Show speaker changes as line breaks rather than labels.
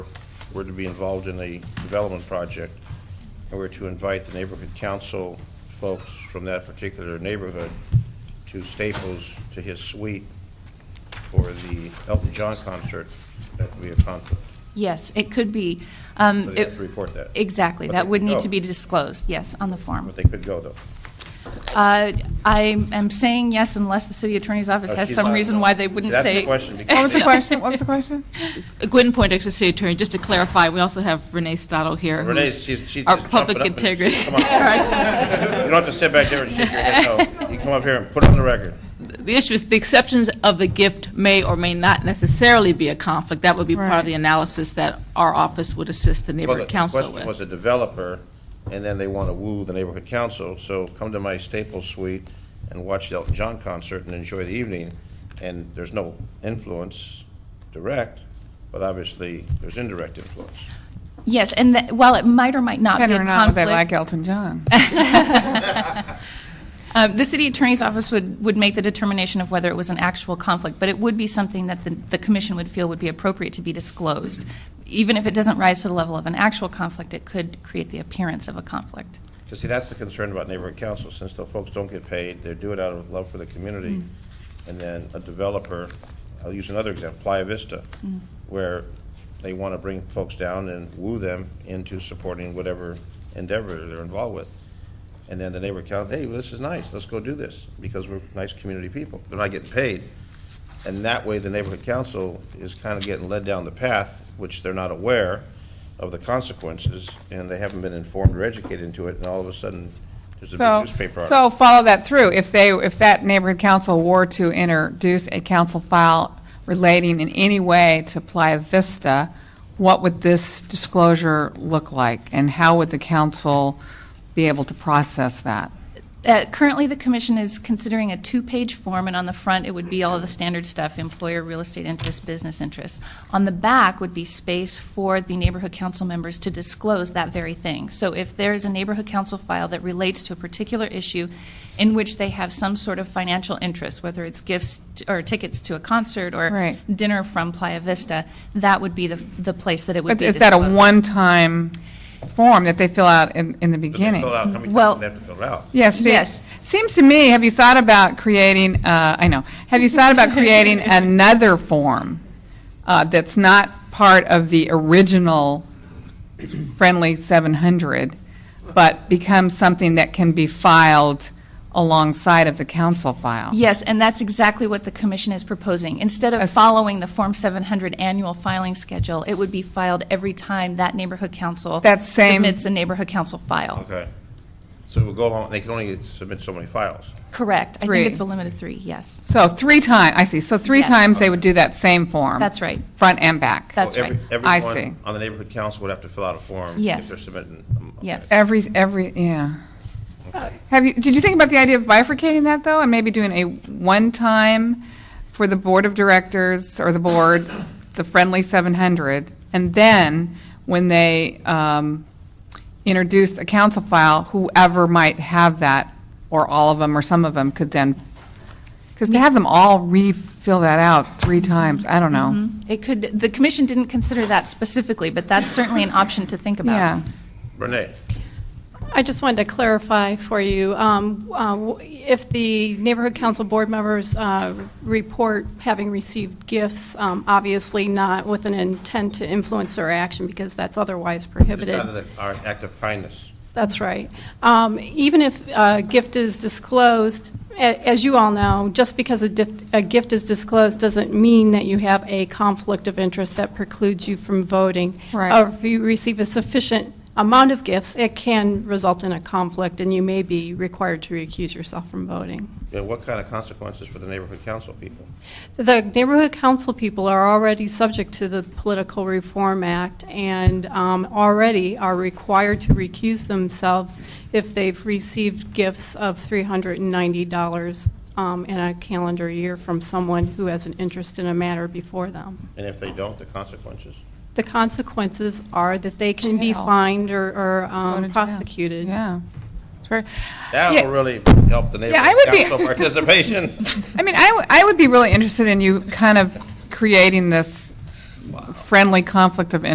were to be involved in a development project, and were to invite the neighborhood council folks from that particular neighborhood to Staples, to his suite, for the Elton John concert, that would be a conflict.
Yes, it could be. um,
So they have
it-
to report that.
Exactly,
But
that
they
would
could
need
go.
to be disclosed, yes, on the form.
But they could go, though.
Uh, I am saying yes unless the city attorney's office
Oh,
has
she's
some
not-
reason why they wouldn't
That's the
say.
question, because
What was the question? What was the question?
Gwynn Point, Exeter City Attorney, just to clarify, we also have Renee Stottle here.
Renee,
who's
she's, she's
Our
just
public
jumping up and-
integrity.
Come on. You don't have to sit back there and shake your head, no. You come up here and put it on the record.
The issue is, the exceptions of the gift may or may not necessarily be a conflict. That would be part
Right.
of the analysis that our office would assist the
Well,
neighborhood
the
council
question was
with.
a developer, and then they want to woo the neighborhood council, so come to my Staples Suite and watch the Elton John concert and enjoy the evening, and there's no influence direct, but obviously, there's indirect influence.
Yes, and that- while it might or might not be a
Better
conflict.
or not, they like Elton John.
Uh, The city attorney's office would, would make the determination of whether it was an actual conflict, but it would be something that the, the commission would feel would be appropriate to be disclosed. Even if it doesn't rise to the level of an actual conflict, it could create the appearance of a conflict.
Because see, that's the concern about neighborhood council, since the folks don't get paid, they do it out of love for the community. And then a developer, I'll use another example, Playa Vista, where they want to bring folks down and woo them into supporting whatever endeavor they're involved with. And then the neighborhood council, hey, well, this is nice, let's go do this, because we're nice community people. They're not getting paid. And that way, the neighborhood council is kind of getting led down the path, which they're not aware of the consequences, and they haven't been informed or educated into it, and all of a sudden, there's a big
So,
newspaper
so
article.
follow that through. If they, if that neighborhood council were to introduce a council file relating in any way to Playa Vista, what would this disclosure look like? And how would the council be able to process that?
Uh, Currently, the commission is considering a two-page form, and on the front, it would be all of the standard stuff, employer, real estate interest, business interests. On the back would be space for the neighborhood council members to disclose that very thing. So if there is a neighborhood council file that relates to a particular issue in which they have some sort of financial interest, whether it's gifts t- or tickets to a concert or
Right.
dinner from Playa Vista, that would be the, the place that it would
But
be
is that a
disclosed.
one-time form that they fill out in, in the
Does they
beginning?
fill it out? How many
Well-
times do they have to fill it out?
Yes,
Yes.
yes. Seems to me, have you thought about creating, uh, I know, have you thought about creating another form uh, that's not part of the original friendly 700, but becomes something that can be filed alongside of the council file?
Yes, and that's exactly what the commission is proposing. Instead of
As-
following the Form 700 annual filing schedule, it would be filed every time that neighborhood council
That same-
submits a neighborhood council file.
Okay. So we'll go along, they can only submit so many files.
Correct. I
Three.
think it's a limit of three, yes.
So three times, I see, so three
Yes.
times they would do that same form?
That's right.
Front and back?
That's
So every-
right.
I see.
Everyone on the neighborhood council would have to fill out a form.
Yes.
If they're submitting. um, okay.
Yes.
Every, every, yeah. Have you, did you think about the idea of bifurcating that, though, and maybe doing a one-time for the board of directors or the board, the friendly 700, and then when they um, introduce a council file, whoever might have that, or all of them, or some of them, could then, because to have them all refill that out three times, I don't know.
It could, the commission didn't consider that specifically, but that's certainly an option to think about.
Yeah.
Renee,
I just wanted to clarify for you, um, uh, w- if the neighborhood council board members uh, report having received gifts, um, obviously not with an intent to influence their action, because that's otherwise
just
prohibited.
out of the, our act of kindness.
That's right. Um, Even if a gift is disclosed, a- as you all know, just because a dif- a gift is disclosed doesn't mean that you have a conflict of interest that precludes you from voting.
Right.
Or if you receive a sufficient amount of gifts, it can result in a conflict, and you may be required to recuse yourself from voting.
Yeah, what kind of consequences for the neighborhood council people?
The neighborhood council people are already subject to the Political Reform Act and um, already are required to recuse themselves if they've received gifts of $390 um, in a calendar year from someone who has an interest in a matter before them.
And if they don't, the consequences?
The consequences are that they can be
Jail.
fined or- or
Go to
um,
jail.
prosecuted.
Yeah. It's very-
That
Yeah.
will really help the
Yeah, I
neighborhood
would be-
council participation.
I mean, I, w- I would be really interested in you kind of creating this friendly conflict of interest